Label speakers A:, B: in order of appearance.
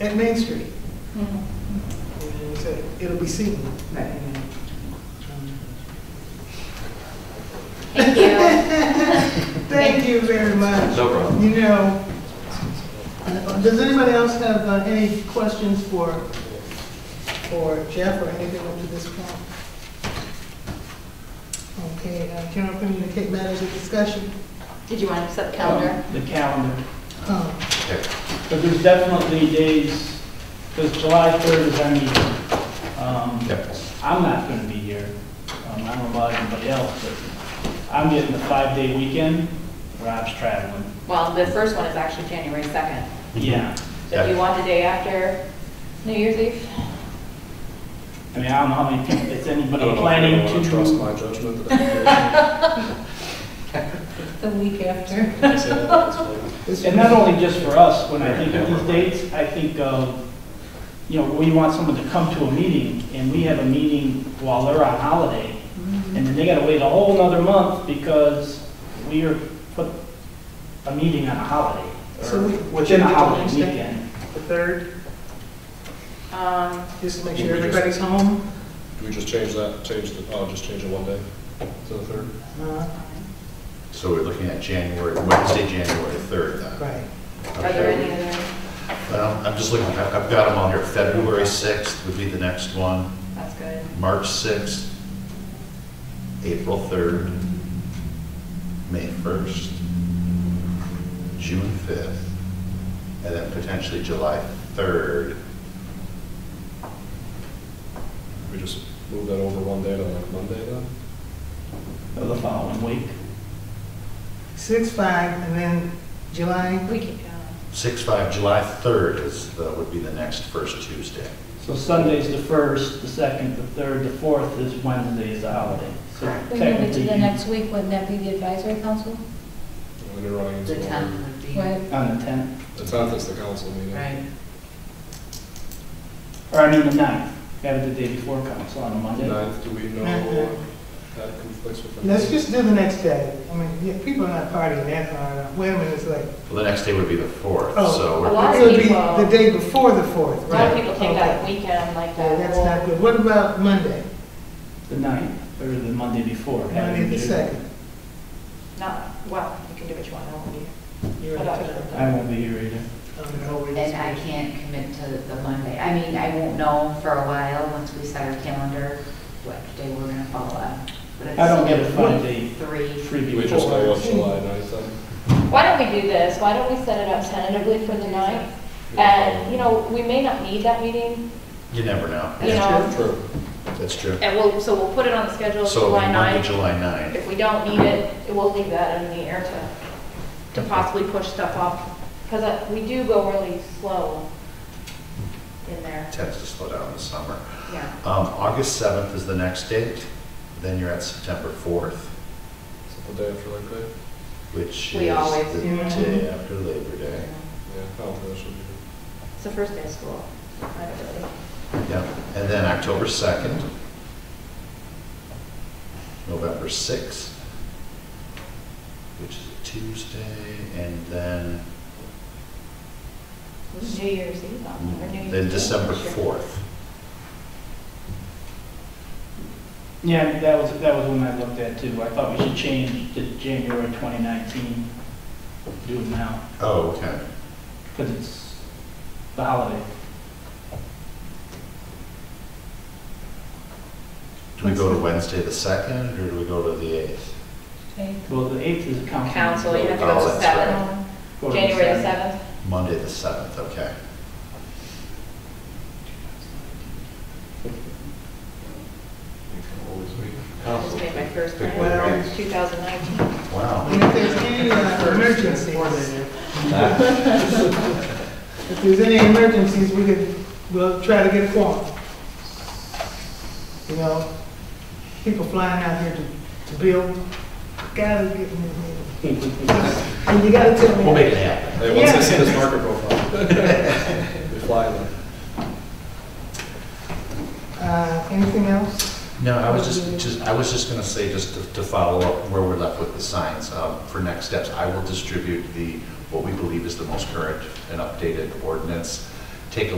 A: at Main Street. And so It'll be seen.
B: Thank you.
A: Thank you very much.
C: No problem.
A: You know, uh, does anybody else have uh, any questions for, for Jeff or anything up to this point? Okay, uh, can I communicate matters of discussion?
B: Did you want to set the
D: Um,
B: calendar?
D: The calendar.
A: Uh,
D: But there's definitely days, because July 3rd is our meeting. Um,
C: Yep.
D: I'm not going to be here. Um, I don't know about anybody else, but I'm getting a five-day weekend. Rob's traveling.
E: Mm-hmm.
B: Well, the first one is actually January 2nd.
D: Yeah.
B: So if you want the day after New Year's Eve?
D: I mean, I don't know how many people, is
E: I
D: anybody
E: don't know if I
D: planning
E: wanna
D: to?
E: Trust my judgment that
B: The week after.
E: I can say that at this point.
D: And not only just for us, when I think of these dates, I think of, you know, we want someone to come to a meeting, and we have a meeting while they're on holiday, and then they gotta wait a whole nother month because we are put a meeting on a holiday,
A: So
D: or
A: we-
D: within a holiday
A: Wednesday?
D: weekend.
A: The third,
B: Um,
A: just to make sure everybody's home.
E: Do we just change that, change the, oh, just change it one day to the third?
A: Uh,
C: So we're looking at January, Wednesday, January 3rd then?
A: Right.
B: are there any other,
C: Well, I'm just looking, I've I've got them on here. February 6th would be the next one,
B: that's good.
C: March 6th, April 3rd, May 1st, June 5th, and then potentially July 3rd.
E: We just move that over one day to like Monday then?
D: Or the following week.
A: Six, five, and then July,
B: We can go.
C: 6/5, July 3rd is, the- would be the next first Tuesday.
D: So Sunday's the first, the second, the third, the fourth is Wednesday is the holiday. So
F: We move it to
D: technically,
F: the next week, wouldn't that be the advisory council?
E: When you're running into. um,
G: The tenth would be,
F: Right,
D: On the tenth,
E: The tenth is the council meeting.
G: right,
D: or I mean the ninth, have it the day before council on a Monday.
E: Ninth, do we know
A: Mhm.
E: that conflicts with? the-
A: let's just do the next day. I mean, yeah, people are not partying that hard. Women is like,
C: Well, the next day would be the 4th,
A: Oh.
C: so
B: A
C: we're
B: lot
A: It
B: of
A: would be
B: people,
A: the day before the fourth,
B: a lot
A: right?
B: of people take
A: Okay.
B: that weekend like
A: Yeah,
B: that.
A: that's not good. What about Monday,
D: The ninth, or the Monday before. have it
A: Monday the
D: the-
A: second?
B: Not, well, you can do what you want, I won't be.
A: You're
B: I
A: in
B: don't
A: touch.
B: know.
D: I won't be here either.
A: Um, no, we just-
G: and I can't commit to the Monday. I mean, I won't know for a while, once we set our calendar, what day we're gonna follow up. But it's
D: I don't get a Friday
G: Three,
D: freebie.
E: Do we just
D: before.
E: know what July ninth then?
B: Why don't we do this? Why don't we set it up tentatively for the ninth? And, Uh, you know, we may not need that meeting,
C: You never know.
B: you know,
E: True.
C: That's true.
B: and we'll, so we'll put it on the schedule for
C: So
B: July
C: Monday,
B: 9.
C: July 9th.
B: If we don't need it, we'll leave that in the air to, to possibly push stuff off. Because we do go really slow in there,
C: tends to slow down in the summer.
B: yeah.
C: Um, August 7th is the next date, then you're at September 4th,
E: Is it the day after Labor Day?
C: which
B: We
C: is
B: always
C: the
A: do.
C: day after Labor Day.
E: Yeah, I don't think that should be.
B: It's the first day of school. I don't really-
C: Yep, and then October 2nd, November 6th, which is a Tuesday, and then,
B: New Year's Eve, or New Year's.
C: Mm-hmm. then
B: Eve
C: December
B: this year.
C: 4th.
D: Yeah, that was, that was one I looked at too. I thought we should change to January 2019, do it now,
C: Oh, okay.
D: because it's the holiday.
C: Do we go to Wednesday the 2nd, or do we go to the 8th?
F: okay.
D: Well, the 8th is a council.
B: Council, you have to
C: Oh,
B: go to
C: that's
B: seven,
D: Go to
B: January the seventh.
C: Monday the 7th, okay.
E: You can always wait.
B: I just made my first
C: Pick
B: plan,
C: one.
A: Well-
B: 2019.
C: Wow.
A: And if there's any uh, emergencies, if there's any emergencies, we could, we'll try to get a form. You know, people flying out here to, to build, gotta get in there. And you gotta tell me.
C: We'll make it happen.
E: Hey, once
A: Yeah.
E: I see this marker profile, we fly then.
A: Uh, anything else?
C: No, I was just, just, I was just gonna say, just to, to follow up where we're left with the signs, um, for next steps, I will distribute the, what we believe is the most current and updated ordinance, take a